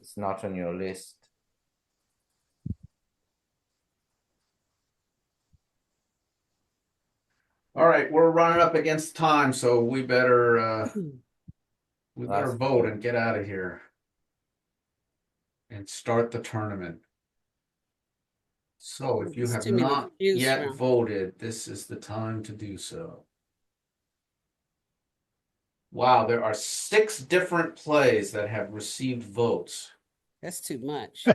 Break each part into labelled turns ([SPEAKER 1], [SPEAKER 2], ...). [SPEAKER 1] it's not on your list.
[SPEAKER 2] All right, we're running up against time, so we better, uh, we better
[SPEAKER 1] Last.
[SPEAKER 2] vote and get out of here. And start the tournament. So if you
[SPEAKER 3] It's
[SPEAKER 2] have
[SPEAKER 3] too many to
[SPEAKER 2] not
[SPEAKER 3] choose
[SPEAKER 2] yet
[SPEAKER 3] from.
[SPEAKER 2] voted, this is the time to do so. Wow, there are six different plays that have received votes.
[SPEAKER 3] That's too much.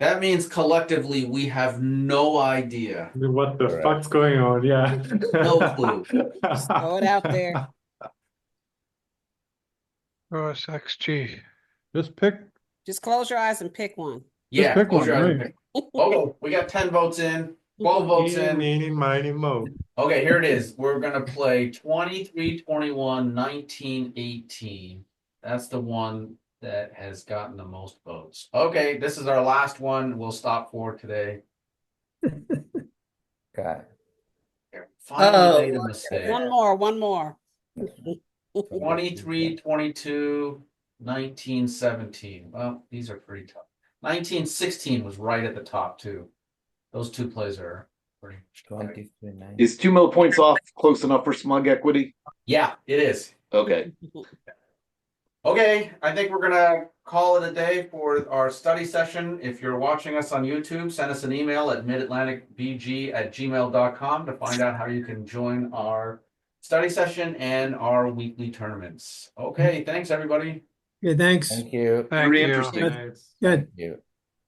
[SPEAKER 2] That means collectively, we have no idea.
[SPEAKER 4] What the
[SPEAKER 1] Right.
[SPEAKER 4] fuck's going on? Yeah.
[SPEAKER 2] No clue.
[SPEAKER 3] throw it out there.
[SPEAKER 5] OS XG.
[SPEAKER 4] Just pick.
[SPEAKER 3] Just close your eyes and pick one.
[SPEAKER 2] Yeah.
[SPEAKER 4] pick
[SPEAKER 2] close
[SPEAKER 4] one,
[SPEAKER 2] your eyes and
[SPEAKER 4] right?
[SPEAKER 2] pick Oh, we got ten votes in, twelve votes
[SPEAKER 4] Eeny,
[SPEAKER 2] in.
[SPEAKER 4] meeny, miny, moe.
[SPEAKER 2] Okay, here it is. We're gonna play 23, 21, 19, 18. That's the one that has gotten the most votes. Okay, this is our last one. We'll stop for today.
[SPEAKER 1] Okay,
[SPEAKER 3] Oh,
[SPEAKER 2] Finally made a mistake.
[SPEAKER 3] One more, one more.
[SPEAKER 2] 23, 22, 19, 17. Well, these are pretty tough. 19, 16 was right at the top too. Those two plays are pretty.
[SPEAKER 1] twenty-three, nine.
[SPEAKER 6] Is two mil points off close enough for smug equity?
[SPEAKER 2] Yeah, it is.
[SPEAKER 6] Okay.
[SPEAKER 2] Okay, I think we're gonna call it a day for our study session. If you're watching us on YouTube, send us an email at midatlanticbg@gmail.com to find out how you can join our study session and our weekly tournaments. Okay, thanks, everybody.
[SPEAKER 7] Okay, thanks.
[SPEAKER 1] Thank you.
[SPEAKER 5] Thank
[SPEAKER 6] Very
[SPEAKER 5] you.
[SPEAKER 6] interesting.
[SPEAKER 4] Nice.
[SPEAKER 7] Good.
[SPEAKER 1] Thank You.